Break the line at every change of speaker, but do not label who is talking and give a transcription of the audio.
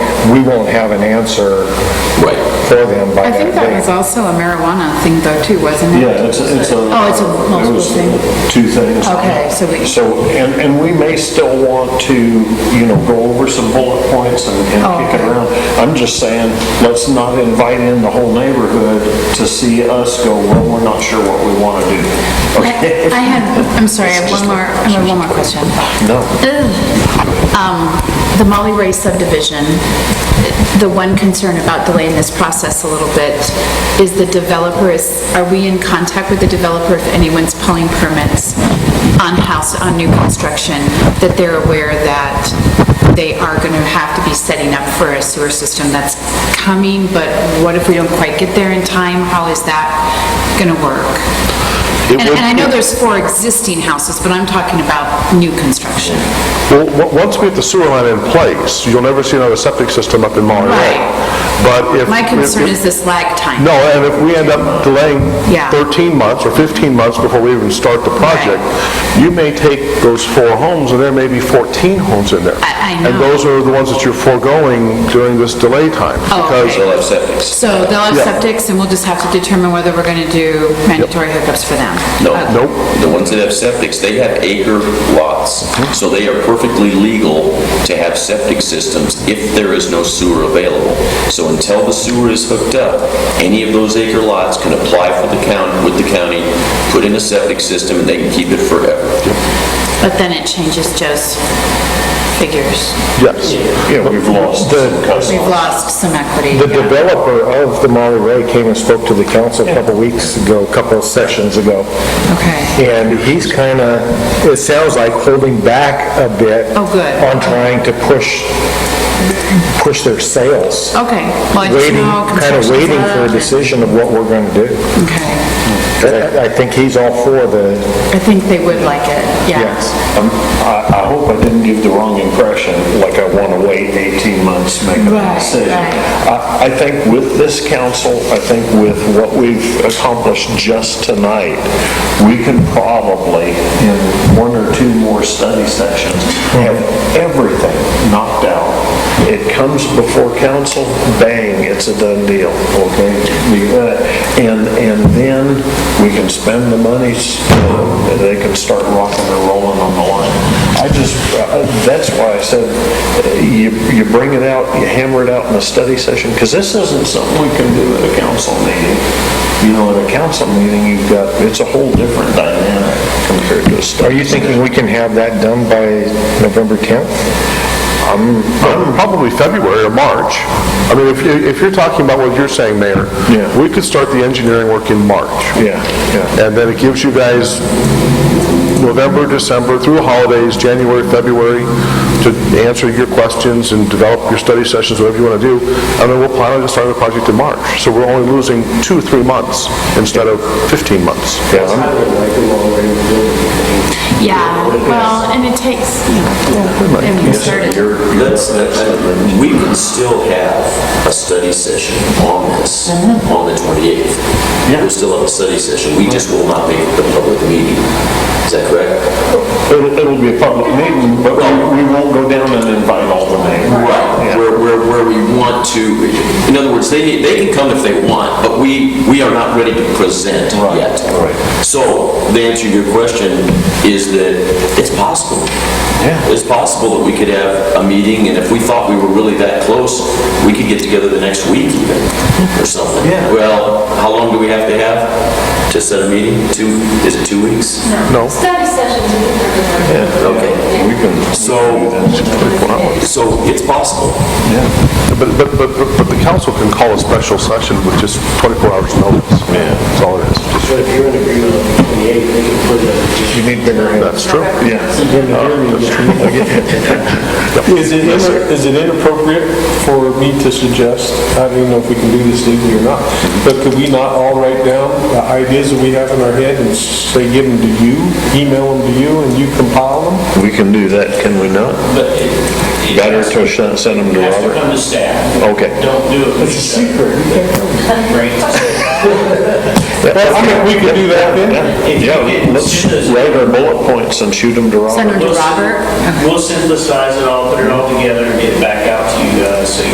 we won't have an answer
Right.
for them by
I
that
think that was
date.
also a marijuana thing though, too, wasn't it?
Yeah, it's, a- it's a.
Oh, it's a
it
multiple
was
thing.
Two things.
Okay, so we,
So, and, and we may still want to, you know, go over some bullet points and
Oh,
and kick it around. I'm just saying, let's not invite in the whole neighborhood to see us go, well, we're not sure what we want to do.
I
Okay?
I had, I'm sorry, I have one more, I have one more question.
No.
The Molly Ray subdivision, the one concern about delaying this process a little bit is the developer is, are we in contact with the developer if anyone's pulling permits on house, on new construction, that they're aware that they are going to have to be setting up for a sewer system that's coming, but what if we don't quite get there in time? How is that going to work?
It
And
would-
and I know there's four existing houses, but I'm talking about new construction.
Well, o- once we get the sewer line in place, you'll never see another septic system up in Monterey.
Right.
But if...
My
if-
concern is this lag time.
No, and if we end up delaying
Yeah.
13 months or 15 months before we even start the project, you may take those four homes, and there may be 14 homes in there.
I- I know.
And those are the ones that you're foregoing during this delay time.
Oh,
because
okay.
They'll have septics.
So they'll have
Yeah.
septics, and we'll just have to determine whether we're going to do mandatory hookups for them. Uh,
No.
Okay.
Nope.
The ones that have septics, they have acre lots, so they are perfectly legal to have septic systems if there is no sewer available. So until the sewer is hooked up, any of those acre lots can apply for the county, with the county, put in a septic system, and they can keep it forever.
But then it changes Joe's figures.
Yes.
Yeah, we've lost some
We've
customers.
lost some equity.
The developer of the Molly Ray came and spoke to the council a couple weeks ago, a couple of sessions ago,
Okay.
and he's kind of, it sounds like holding back a bit.
Oh, good.
On trying to push, push their sales.
Okay. Well, I just
Waiting,
Oh, know
kind of
construction's
waiting for a
up and-
decision of what we're going to do.
Okay.
'Cause I I think he's all for the,
I think they would like it, yeah.
yes.
Um, I, I hope I didn't give the wrong impression, like I want to wait 18 months to make
Right,
a decision.
right.
I, I think with this council, I think with what we've accomplished just tonight, we can probably, in one or two more study sessions, have everything knocked out. It comes before council, bang, it's a done deal, okay? We, uh, And, and then we can spend the monies, uh, they can start rocking and rolling on the line. I just, uh, that's why I said, uh, you, you bring it out, you hammer it out in a study session, because this isn't something we can do at a council meeting. You know, at a council meeting, you've got, it's a whole different dynamic compared to a study.
Are you thinking we can have that done by November 10th?
Probably February or March. I mean, if you- if you're talking about what you're saying, Mayor,
Yeah.
we could start the engineering work in March.
Yeah, yeah.
And then it gives you guys November, December, through holidays, January, February, to answer your questions and develop your study sessions, whatever you want to do. And then we'll plan on starting the project in March. So we're only losing two, three months instead of 15 months.
Yeah, I'm-
Yeah, well, and it takes, you know, and we started.
You're, that's, that- we can still have a study session on this, on the 28th. We'll still have a study session, we just will not make it the public meeting. Is that correct?
It'll, it'll be a public meeting, but we we won't go down and invite all the names.
Right, where, where, where we want to, in other words, they, need- they can come if they want, but we, we are not ready to present
Right,
yet.
right.
So, the answer to your question is that it's possible.
Yeah.
It's possible that we could have a meeting, and if we thought we were really that close, we could get together the next week even, or something.
Yeah.
Well, how long do we have to have to set a meeting? Two, is it two weeks?
No?
Study sessions.
Okay.
We can,
So, so it's possible.
But, but, but but the council can call a special session with just 24 hours notice. Yeah. That's all it is.
So if you're in agreement on the 28th, they can put it
You need bigger hands.
That's true.
yeah.
in the hearing.
Is it, inter- is it inappropriate for me to suggest, I don't even know if we can do this legally or not, but could we not all write down the ideas that we have in our head and say, give them to you, email them to you, and you compile them?
We can do that, can we not? Better to sh- send them to Robert?
uh, to staff.
Okay.
Don't do it. It's a secret.
Well,
I mean, we could do that then.
Yeah, let's write our bullet points and shoot them to Robert.
Send them to Robert.
We'll synthesize it all, put it all together, and get it back out to you guys, so you